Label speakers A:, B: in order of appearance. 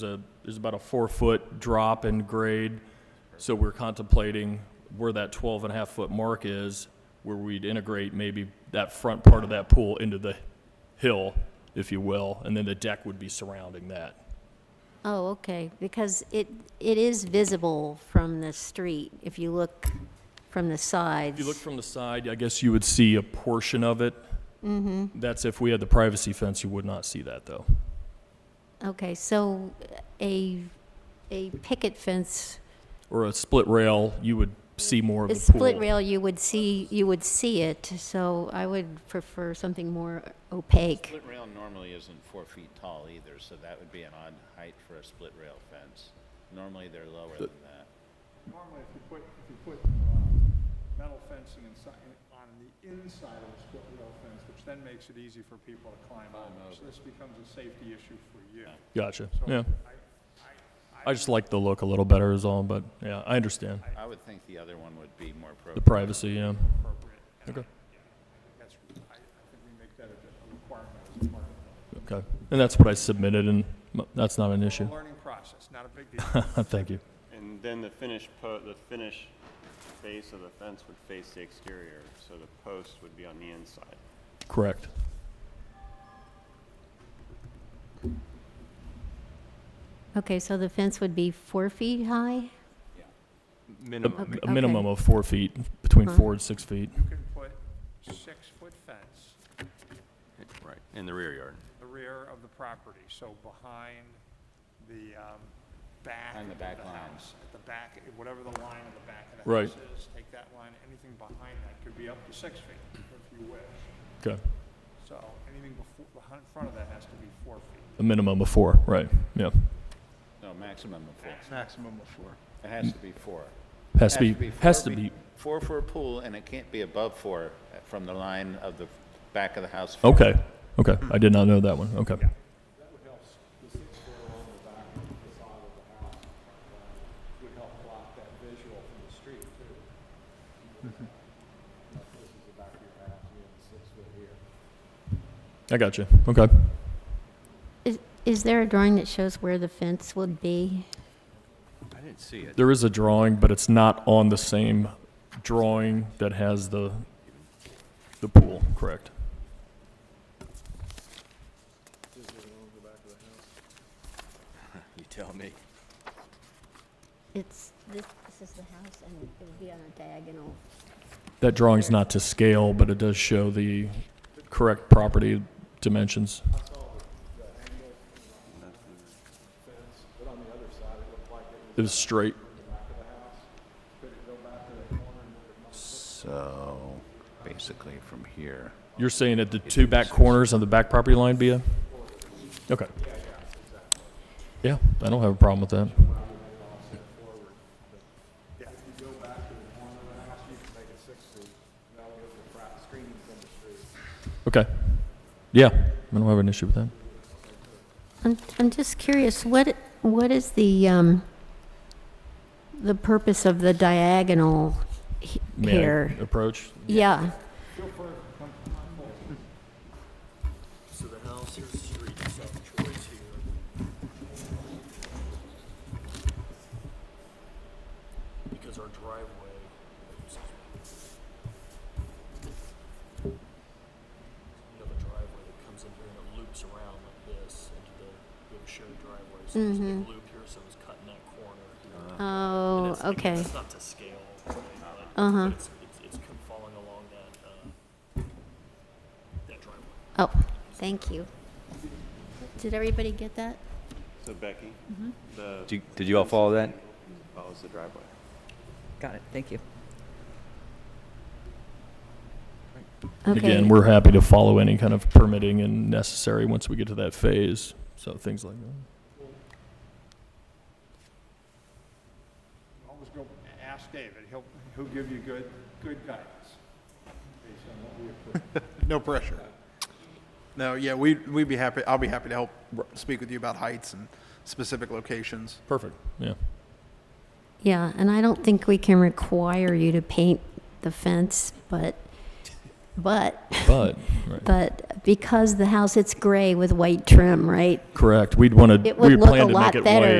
A: There's a, there's about a four-foot drop in grade, so we're contemplating where that 12 and a half foot mark is, where we'd integrate maybe that front part of that pool into the hill, if you will, and then the deck would be surrounding that.
B: Oh, okay, because it, it is visible from the street, if you look from the sides.
A: If you look from the side, I guess you would see a portion of it. Mm-hmm. That's if we had the privacy fence, you would not see that, though.
B: Okay, so a, a picket fence,
A: Or a split rail, you would see more of
B: a
A: the pool.
B: split rail, you would see, you would see it, so I would prefer something more opaque.
C: Split rail normally isn't four feet tall either, so that would be an odd height for a split rail fence. Normally, they're lower than that.
D: Normally, if you put, if you put uh, metal fencing inside, on the inside of the split rail fence, which then makes it easy for people to climb over, so this becomes a safety issue for you.
A: Gotcha,
D: So
A: yeah.
D: I-
A: I just like the look a little better is all, but, yeah, I understand.
C: I would think the other one would be more appropriate.
A: The privacy, yeah.
D: Appropriate. And I-
A: Okay.
D: yeah, I think That's, I, I think we make that a a requirement as part of the-
A: Okay, and that's what I submitted, and m- that's not an issue.
D: a learning process, not a big deal.
A: Thank you.
E: And then the finished po, the finished face of the fence would face the exterior, so the post would be on the inside.
A: Correct.
B: Okay, so the fence would be four feet high?
A: A-
B: Okay. Uh-huh.
A: A minimum of four feet, between
B: Huh?
A: four and six feet.
D: You can put six-foot fence
E: Right, in the rear yard.
D: the rear of the property, so behind the um, back
C: Behind the
D: of
C: back
D: the
C: line.
D: house. At the back, whatever the line of the back of the
A: Right.
D: house is, take that line, anything behind that could be up to six feet if you wish.
A: Okay,
D: So anything before, behind, in front of that has to be four feet.
A: a minimum of four, right, yeah.
C: No, maximum of four.
D: Maximum of four.
C: It has to be four.
A: Has to be, has
C: four
A: to be,
C: Four for a pool, and it can't be above four uh, from the line of the back of the house. forward.
A: okay, okay, I did not know that one, okay. I got you, okay.
B: Is, is there a drawing that shows where the fence would be?
A: There is a drawing, but it's not on the same drawing that has the, the pool, correct?
B: It's, this, this is the house, and it would be on a diagonal.
A: That drawing's not to scale, but it does show the correct property dimensions. It was straight.
C: So basically from here.
A: You're saying at the two back corners on the back property line, Bia? Okay. Yeah, I don't have a problem with that. Okay. Yeah, I don't have an issue with that.
B: I'm, I'm just curious, what, what is the, um, the purpose of the diagonal he-
A: May I
B: here?
A: Approach?
B: Yeah,
F: So the house, here's the street, so Troy's here. Because our driveway. excuse me. You have a driveway that comes in here and it loops around like this into the, we have a shared driveway, so there's a big loop here, so it's cutting that corner here. And
B: Mm-hmm. oh,
F: it's- I mean,
B: okay, Uh-huh.
F: It's not to scale, right, like, but it's, it's, it's kind of falling along that, uh, that driveway.
B: oh, thank you. Did everybody get that?
E: So Becky, the
G: Did you, did you all follow that?
E: follows the driveway.
H: Got it, thank you.
B: Okay.
A: Again, we're happy to follow any kind of permitting and necessary once we get to that phase, so things like that.
D: Always go, ask David, he'll, he'll give you good, good guidance based on what we approve.
I: No pressure. No, yeah, we, we'd be happy, I'll be happy to help speak with you about heights and specific locations.
A: Perfect, yeah.
B: Yeah, and I don't think we can require you to paint the fence, but but,
A: But, right.
B: but because the house, it's gray with white trim, right?
A: correct, we'd want to,
B: It would
A: we
B: look a
A: plan to
B: lot
A: make it
B: better
A: white.